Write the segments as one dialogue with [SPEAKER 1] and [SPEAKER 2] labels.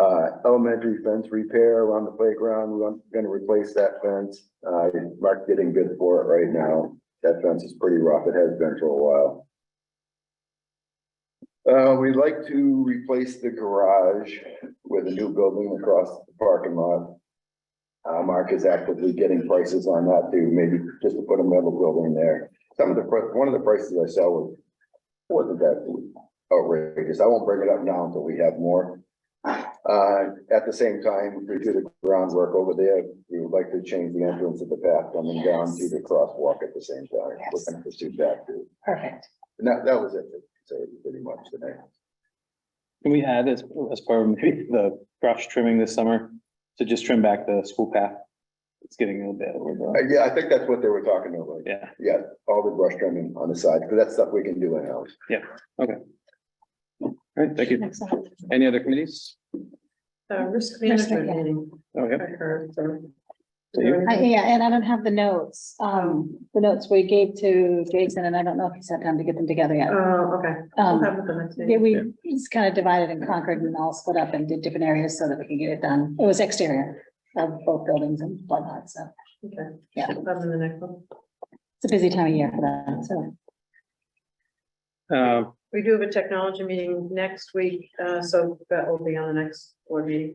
[SPEAKER 1] Uh, elementary fence repair around the playground, we're gonna replace that fence. Uh, Mark's getting good for it right now. That fence is pretty rough. It has been for a while. Uh, we'd like to replace the garage with a new building across the parking lot. Uh, Mark is actively getting prices on that too, maybe just to put a metal building there. Some of the, pri- one of the prices I saw was, wasn't that outrageous. I won't bring it up now until we have more. Uh, at the same time, we do the groundwork over there. We would like to change the entrance of the path coming down to the crosswalk at the same time. We're
[SPEAKER 2] Yes.
[SPEAKER 1] gonna pursue that too.
[SPEAKER 2] Perfect.
[SPEAKER 1] And that, that was it, so pretty much today.
[SPEAKER 3] Can we add as, as part of maybe the brush trimming this summer to just trim back the school path? It's getting a little bit overgrown.
[SPEAKER 1] Uh, Yeah, I think that's what they were talking about.
[SPEAKER 3] Yeah,
[SPEAKER 1] Yeah, all the brush trimming on the side, because that's stuff we can do in-house.
[SPEAKER 3] all right, thank you.
[SPEAKER 2] Excellent.
[SPEAKER 3] Any other committees?
[SPEAKER 4] The risk
[SPEAKER 2] management
[SPEAKER 4] management meeting,
[SPEAKER 3] Oh, yeah.
[SPEAKER 4] I heard, so.
[SPEAKER 3] So you-
[SPEAKER 2] I- Yeah, and I don't have the notes, um, the notes we gave to Jason, and I don't know if he's had time to get them together yet.
[SPEAKER 4] Oh, okay. We'll have
[SPEAKER 2] Um,
[SPEAKER 4] it the next
[SPEAKER 2] yeah,
[SPEAKER 4] meeting.
[SPEAKER 2] we just kind of divided and conquered and all split up and did different areas so that we could get it done. It was exterior of both buildings and whatnot, so
[SPEAKER 4] Okay.
[SPEAKER 2] yeah.
[SPEAKER 4] Other than the next one.
[SPEAKER 2] it's a busy time of year for that, so.
[SPEAKER 3] Uh,
[SPEAKER 4] We do have a technology meeting next week, uh, so that will be on the next board meeting.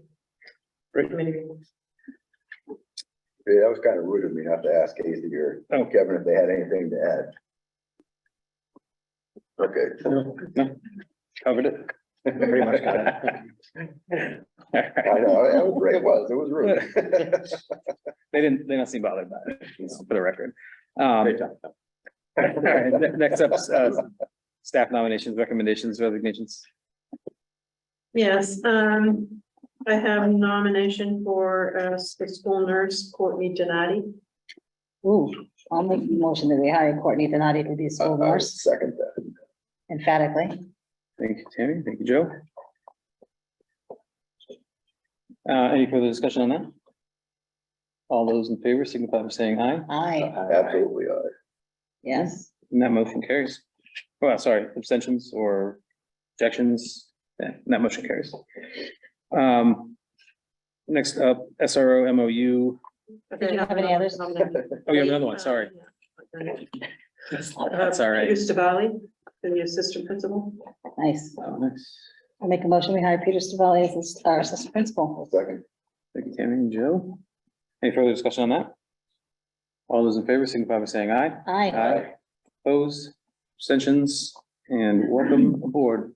[SPEAKER 3] Great.
[SPEAKER 4] Committee meeting.
[SPEAKER 1] Yeah, that was kind of rude of me not to ask Casey or
[SPEAKER 3] Oh.
[SPEAKER 1] Kevin if they had anything to add. Okay.
[SPEAKER 3] no, Covered it. Pretty much covered it. All
[SPEAKER 1] I
[SPEAKER 3] right.
[SPEAKER 1] know, it was, it was, it was rude.
[SPEAKER 3] They didn't, they don't seem bothered by it, you know, for the record. Um, all right, ne- next up, uh, staff nominations, recommendations, resignations.
[SPEAKER 4] Yes, um, I have nomination for, uh, s- the school nurse Courtney Donati.
[SPEAKER 2] Ooh, I'll make the motion that we hire Courtney Donati to be a school
[SPEAKER 1] I'll
[SPEAKER 2] nurse
[SPEAKER 1] Second that.
[SPEAKER 2] emphatically.
[SPEAKER 3] Thank you, Tammy. Thank you, Joe. Uh, any further discussion on that? All those in favor signify by saying aye,
[SPEAKER 2] Aye,
[SPEAKER 1] Absolutely. all right.
[SPEAKER 2] yes.
[SPEAKER 3] and that motion carries. Well, sorry, abstentions or objections, yeah, and that motion carries. Um, next up, SRO MOU,
[SPEAKER 2] Did you have any others?
[SPEAKER 3] oh, you have another one, sorry. That's all right.
[SPEAKER 4] Peter Stavali, uh, the assistant principal.
[SPEAKER 2] Nice.
[SPEAKER 3] Oh, nice.
[SPEAKER 2] I'll make a motion, we hire Peter Stavelli as this- our assistant
[SPEAKER 1] I'll
[SPEAKER 2] principal.
[SPEAKER 1] Second.
[SPEAKER 3] Thank you, Tammy and Joe. Any further discussion on that? All those in favor signify by saying aye.
[SPEAKER 2] Aye,
[SPEAKER 3] Aye. Opposed, abstentions, and welcome aboard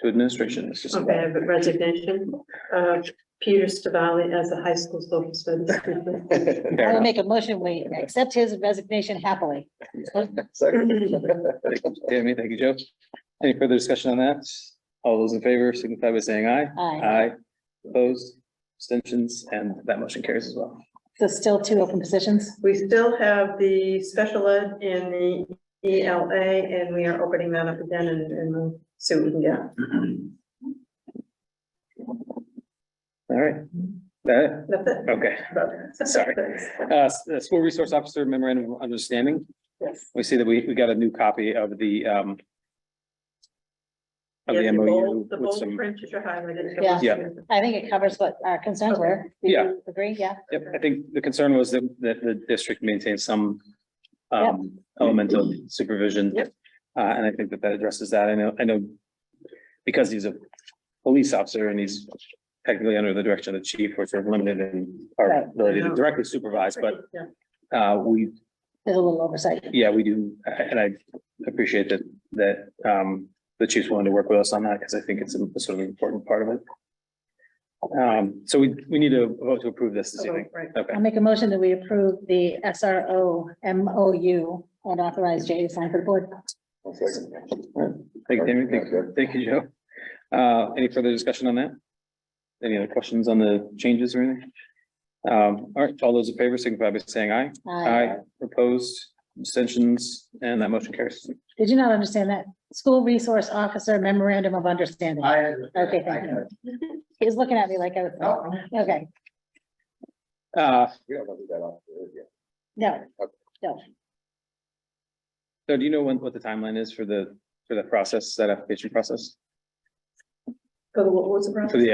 [SPEAKER 3] to administration. It's just-
[SPEAKER 4] Okay, I have a resignation, uh, Peter Stavali as the high school social studies. teacher.
[SPEAKER 2] I
[SPEAKER 3] Fair
[SPEAKER 2] will
[SPEAKER 3] enough.
[SPEAKER 2] make a motion, we accept his resignation happily.
[SPEAKER 1] Second.
[SPEAKER 3] Thank you, Tammy, thank you, Joe. Any further discussion on that? All those in favor signify by saying aye.
[SPEAKER 2] Aye.
[SPEAKER 3] Aye. Opposed, abstentions, and that motion carries as well.
[SPEAKER 2] So still two open positions?
[SPEAKER 4] We still have the special ed and the ELA, and we are opening that up again and, and we'll see what we can get.
[SPEAKER 3] All right. That,
[SPEAKER 4] That's it.
[SPEAKER 3] okay. Sorry. Uh, s- the School Resource Officer Memorandum of Understanding.
[SPEAKER 4] Yes.
[SPEAKER 3] We see that we, we got a new copy of the, um, of
[SPEAKER 4] Yeah,
[SPEAKER 3] the MOU
[SPEAKER 4] bold- The
[SPEAKER 3] with
[SPEAKER 4] bold
[SPEAKER 3] some,
[SPEAKER 4] print is your highlight. it's
[SPEAKER 2] Yeah.
[SPEAKER 4] the-
[SPEAKER 3] Yeah.
[SPEAKER 2] I think it covers what our concerns were. Do you
[SPEAKER 3] Yeah.
[SPEAKER 2] Agree, yeah.
[SPEAKER 3] Yep, I think the concern was that, that the district maintains some um, element of supervision.
[SPEAKER 4] Yep.
[SPEAKER 3] Uh, and I think that that addresses that. I know, I know because he's a police officer and he's technically under the direction of the chief, which are limited in our
[SPEAKER 2] Right.
[SPEAKER 3] ability to directly supervise, but
[SPEAKER 4] Yeah.
[SPEAKER 3] uh, we,
[SPEAKER 2] There's a little oversight.
[SPEAKER 3] yeah, we do, and I appreciate that, that um, the chief's willing to work with us on that because I think it's a sort of important part of it. Um, so we, we need to vote to approve this this evening.
[SPEAKER 4] Oh, Right.
[SPEAKER 3] Okay.
[SPEAKER 2] I'll make a motion that we approve the SRO MOU and authorize Jay to sign for the board.
[SPEAKER 1] I'll Second.
[SPEAKER 3] Thank you, Tammy. Thank you, thank you, Joe. Uh, any further discussion on that? Any other questions on the changes or anything? Um, all right, all those in favor signify by saying aye. Opposed, abstentions, and that motion carries.
[SPEAKER 2] Did you not understand that? School Resource Officer Memorandum of Understanding. Okay, thank you. He was looking at me like I was, okay,
[SPEAKER 3] Uh,
[SPEAKER 1] We don't have to do that off. yeah.
[SPEAKER 2] no,
[SPEAKER 3] so do you know when, what the timeline is for the, for the process, that application process?
[SPEAKER 4] So what was the process?
[SPEAKER 3] For the